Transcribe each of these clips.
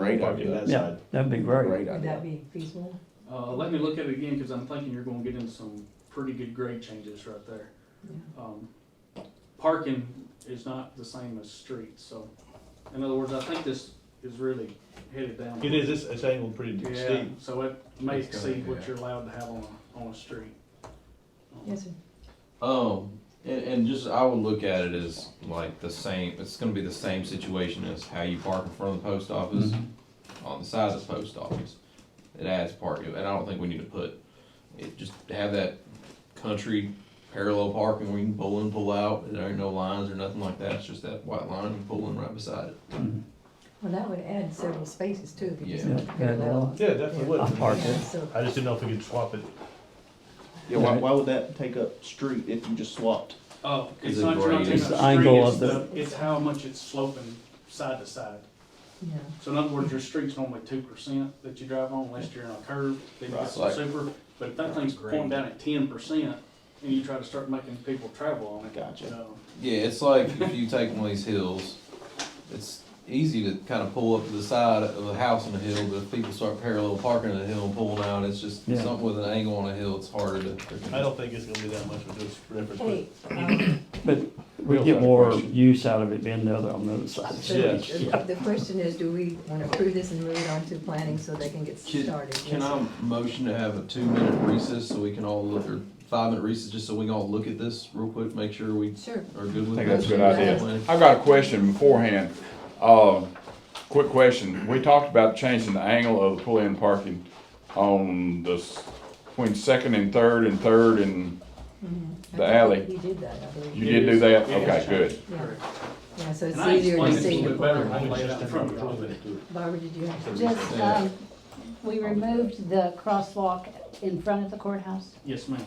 great idea. That Yeah, side. that'd be great. Great Would that idea. be feasible? Uh, let me look at it again, cause I'm thinking you're gonna get in some pretty good grade changes right there. Yeah. Um, parking is not the same as streets, so, in other words, I think this is really headed down. It is, it's, it's angled pretty Yeah, steep. so it may It's gonna- exceed what yeah. you're allowed to have on, a- on a street. Um, Yes, sir. Um, and, and just, I would look at it as like the same, it's gonna be the same situation as how you park in front of the post Mm-hmm. office, Mm-hmm. on the side of the post office. It adds parking, and I don't think we need to put, it, just have that country parallel parking where you can pull in, pull out, there ain't no lines or nothing like that, it's just that white line and pull in right beside it. Mhm. Well, that would add several spaces too, if you just Yeah. went parallel. Yeah, it definitely would. I parked Yeah, it. so, I just didn't know if we could swap it. Yeah, why, why would that take up street if you just swapped? Oh, Is it's it not, you're not grade? taking It's up the street, angle of it's the, the- it's how much it's sloping side to side. yeah. So in other words, your street's normally two percent that you drive on, unless you're on a curve, then you Right. get some super. But if that thing's pointing down at ten percent, and you try to start making people travel on it, you Gotcha. know, Yeah, it's like if you take one of these hills, it's easy to kind of pull up to the side of a house on a hill, but if people start parallel parking on the hill and pulling out, it's just Yeah. something with an angle on a hill, it's harder to. I don't think it's gonna be that much of a dis- difference. Hey, but- um, But we Bill's got get a more question. use out of it being the other on the other side. so Yes. the the question is, do we want to approve this and move it on to planning so they can get Can- started? Can Yes, I motion to have a two-minute recess so we can all look, or five-minute recess, just so we can all look at this real quick, make sure we sir. Sure. are good with it? think that's a good idea. I got a question beforehand. Uh, quick question. We talked about changing the angle of the pull-in parking on the, s- between second and third and third and, I The think alley. You did that, I believe. you did do that? It is Okay, good. Yeah. Correct. Yeah, so it's And I easier explained to it a see. little the bit better plan. when we laid out in front of it. Barbara, did you have? Just, um, we removed the crosswalk in front of the courthouse. Yes, ma'am.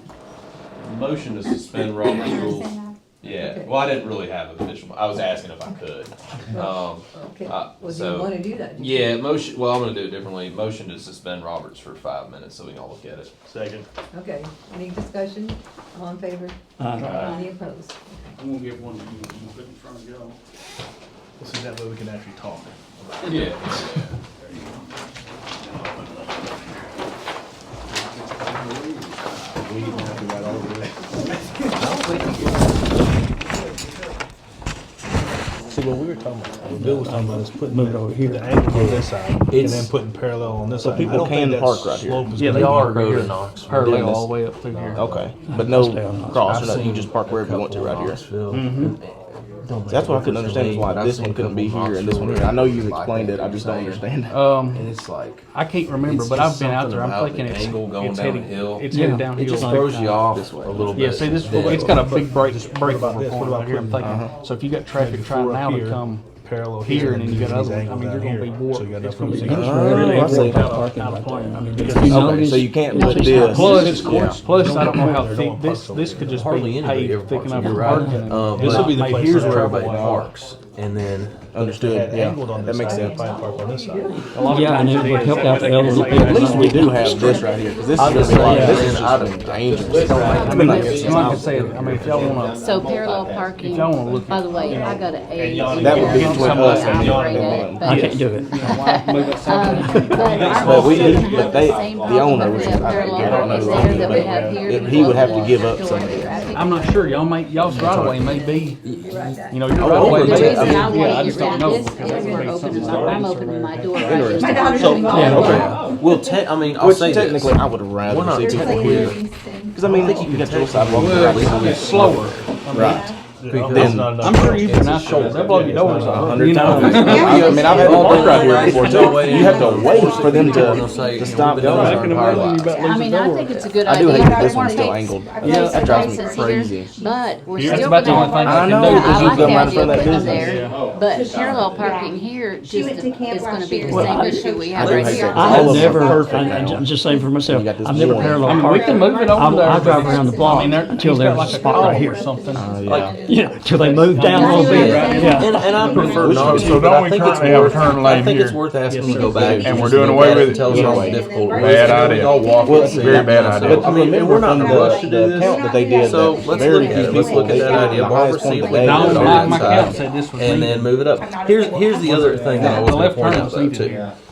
Motion to suspend Robert's rules. Understand Yeah, well, I didn't really have an official, I was asking if I could. Um, oh, Okay, Uh, well, do you so- want to do that? Yeah, motion, well, I'm gonna do it differently. Motion to suspend Roberts for five minutes so we can all look at it. Second. Okay, any discussion? All in favor? Uh, Any opposed? I'm gonna give one to you, you put in front of y'all. So that way we can actually talk. Yeah. We didn't have to write all the way. See, what we were talking about, what Bill was talking about is putting Move it over here. the angle on this side and It's- then putting parallel on this so side. people I don't can think that park right here. slope is Yeah, gonna they be- are. road and Knox. Parallel all the way up through here. Okay, but no Stay on Knoxville. cross, or nothing, you just park wherever you want to right here. So That's what I couldn't understand, is why this one couldn't be here and this one here. I know you've explained it, I just don't understand. Um, it's like I can't remember, It's but just I've been out something there. I'm about thinking the it's, angle going it's down heading, the hill. it's Yeah. headed down It just throws you off this way. a little Yeah, bit. see this, Then- it's got a big break, Just break about this, what report about right here, I'm putting- thinking. So if you got traffic Maybe trying four up now to here, come Parallel here here and then you got these other ones, I angles mean, you're down gonna be here. warped. So you got It's enough gonna room be to It's get- Oh, really I see. worked out, Out of- out of plan. I mean, because you Okay, notice- so you can't Notice put how this. close yeah. Plus, plus, I don't know how They're thick, going this, parks over this here. could just Hardly be anybody ever paved thick parks enough over for here, right? parking. Oh, Uh, This will be the Like, place here's that where Everybody Park. parks and then, Had understood, yeah, angled on that this makes side, sense. if I park on this side. A lot of Yeah, and times it would is. help out the elderly people. At least we do have this right here, because this is gonna be like, Yeah. this is just dangerous. I mean, like I said, I mean, if y'all wanna, So parallel parking, if y'all wanna look by at, the way, I got an A. That would be there. between Oh, us and the other one. I But can't do it. But we, but they, same the owner, problem which with is, the I parallel I don't parking there that we have know. here. It- He because would have to of give the up some of outdoor it. traffic. I'm not sure, y'all may, y'all's right away may be, you know, your right Oh, away The may okay. be. reason I Yeah, want to just don't get rid know, because of this that's is we're gonna be opening, something my- I'm else opening over my there. door right just to daughter's coming involved. back. Okay. Well, te- I mean, I'll Which say technically, this. I would We're not rather see people here, Cleaning things. because I mean, they can control sidewalks. Well, it's slower. Right. That's not enough. I'm sure you've been out there, they blow your doors A off, you hundred know. times. I mean, I've had to park right here before No way. too. You have to wait for them They'll to, say, to you know, stop we've been those doing aren't our parked. pilot. I mean, I think it's a good I idea. do hate I that don't this wanna one's still take angled. place That of drives me races here, crazy. But we're That's still about gonna I the only thing have I parking. can know, do. because I you've like the got mine in idea front of of that putting them business. there, but parallel parking here just went to camp is gonna last be the year. Well, same I- issue we I have do right hate here. that. I All have of them are never, perfect I- now. I'm just saying for myself, You got this I've never one. parallel I mean, we can parked. move it over there. I, I drive around the I block mean, there- Oh, until he's there's a got like a spot right column or here. something. Uh, Like, yeah. Yeah, till they move down a little bit. Yeah. And, and I prefer Which- not to, so but don't I we think it's currently have a worth, turn I lane think it's here? worth asking Yes, to go sir. back. And we're just doing look away at it with and it? Tell us how Yeah. difficult. it Bad is. idea. Y'all walk Well, up it's a and very down bad and idea. stuff. I mean, remember from the, the count that they did, So, the let's very look at it. few Let's people, look at they that got the idea. Barbara, highest see point if that we they can got do Don, it on my, that on my that side. count said this was And then needed. move it up. Here's, here's the other thing that I The was gonna left point turn out was though needed too. here.